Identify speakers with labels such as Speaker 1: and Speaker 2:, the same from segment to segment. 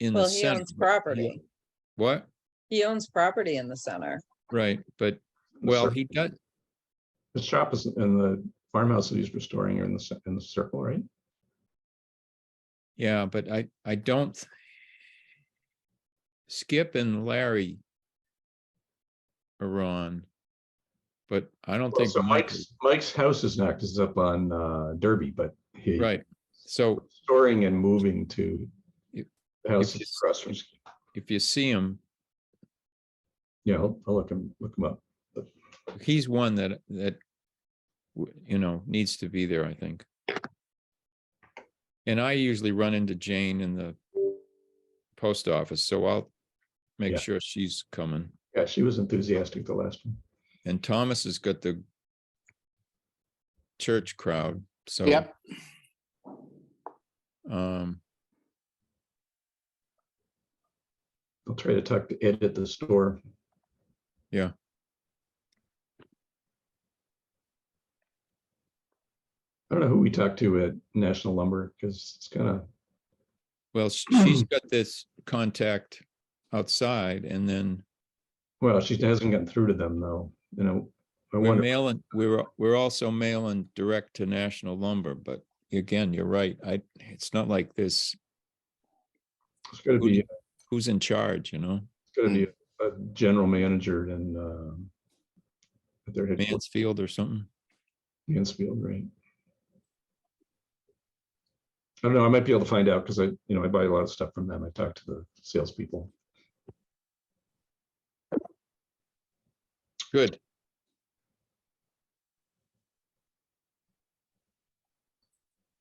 Speaker 1: in the
Speaker 2: Well, he
Speaker 1: center.
Speaker 2: owns property.
Speaker 1: What?
Speaker 2: He owns property in the center.
Speaker 1: Right, but, well, he does,
Speaker 3: The shop is in the farmhouse that he's restoring are in the, cir- in the circle, right?
Speaker 1: yeah, but I, I don't. th- Skip and Larry. Are on. But I don't
Speaker 3: Well,
Speaker 1: think.
Speaker 3: So
Speaker 1: Mike
Speaker 3: Mike's,
Speaker 1: is-
Speaker 3: Mike's house is not, 'cause it's up on uh, Derby, but he.
Speaker 1: Right, so
Speaker 3: Storing and moving to.
Speaker 1: If-
Speaker 3: the House
Speaker 1: if
Speaker 3: is
Speaker 1: it's-
Speaker 3: across from, Sk-
Speaker 1: if you see him,
Speaker 3: yeah, I'll I'll look him, look him up.
Speaker 1: he's one that, that. w- You know, needs to be there, I think. And I usually run into Jane in the. Post office, so I'll. Make
Speaker 3: Yeah.
Speaker 1: sure she's coming.
Speaker 3: Yeah, she was enthusiastic the last one.
Speaker 1: And Thomas has got the church crowd, so.
Speaker 4: Yep.
Speaker 1: Um,
Speaker 3: I'll try to talk to Ed at the store. I don't know who we talked to at National Lumber, because it's kind of,
Speaker 1: well, sh- she's got this contact outside and then
Speaker 3: well, she hasn't gotten through to them though, you know. I
Speaker 1: we're
Speaker 3: wonder,
Speaker 1: mailing, we're, we're also mailing direct to National Lumber, but again, you're right. I, it's not like this,
Speaker 3: it's gotta be, it's
Speaker 1: who's in charge, you know?
Speaker 3: gotta be a general manager and, um, at their headquarters,
Speaker 1: Mansfield or something.
Speaker 3: Mansfield, right? I don't know, I might be able to find out, because I, you know, I buy a lot of stuff from them. I talk to the salespeople.
Speaker 1: Good.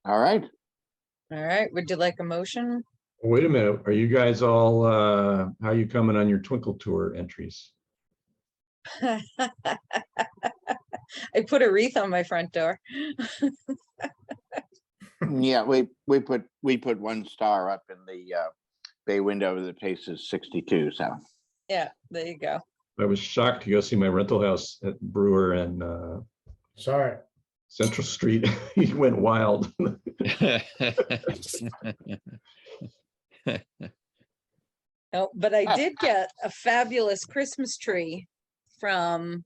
Speaker 4: All right.
Speaker 2: All right, would you like a motion?
Speaker 3: Wait a minute, are you guys all, uh, how you coming on your Twinkle Tour entries?
Speaker 2: I put a wreath on my front door.
Speaker 4: Yeah, we, we put, we put one star up in the uh, bay window that faces sixty-two, so.
Speaker 2: Yeah, there you go.
Speaker 3: I was shocked to go see my rental house at Brewer and uh,
Speaker 5: Sorry.
Speaker 3: Central Street. He went wild.
Speaker 2: No, Oh, but I did get a fabulous Christmas tree from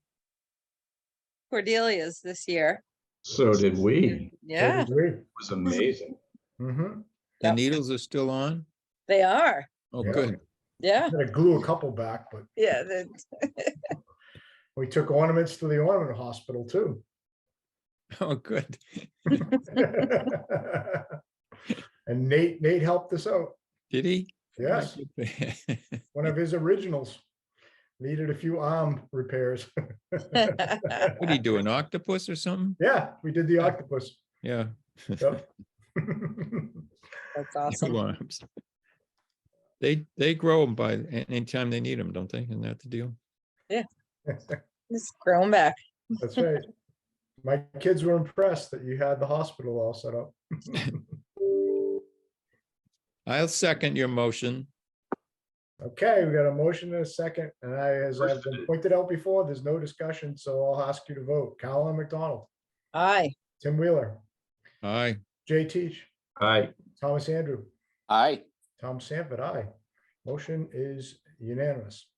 Speaker 2: Cordelia's this year.
Speaker 3: So did we. It
Speaker 2: Yeah,
Speaker 3: was amazing.
Speaker 5: Mm-hmm.
Speaker 1: The
Speaker 2: Yep.
Speaker 1: needles are still on?
Speaker 2: they are.
Speaker 1: Oh,
Speaker 5: Yeah.
Speaker 1: good.
Speaker 2: Yeah,
Speaker 5: Gotta glue a couple back, but
Speaker 2: yeah. the-
Speaker 5: we took ornaments to the ornament hospital too.
Speaker 1: Oh, good.
Speaker 5: And Nate, Nate helped us out.
Speaker 1: Did he?
Speaker 5: Yes, one of his originals. Needed a few arm repairs.
Speaker 1: What do you do, an octopus or something?
Speaker 5: Yeah, we did the octopus.
Speaker 1: Yeah.
Speaker 5: Yep.
Speaker 2: That's
Speaker 1: Two
Speaker 2: awesome.
Speaker 1: arms. They, they grow them by, a- anytime they need them, don't they? Isn't that the deal?
Speaker 2: It's grown back.
Speaker 5: That's right. My kids were impressed that you had the hospital all set up.
Speaker 1: I'll second your motion.
Speaker 5: Okay, we got a motion and a second, and I, as I've been pointed out before, there's no discussion, so I'll ask you to vote. Colin McDonald,
Speaker 2: Aye.
Speaker 5: Tim Wheeler,
Speaker 1: Aye.
Speaker 5: Jay Teach,
Speaker 3: Hi,
Speaker 5: Thomas Andrew,
Speaker 4: Aye.
Speaker 5: Tom Sanford, aye. Motion is unanimous.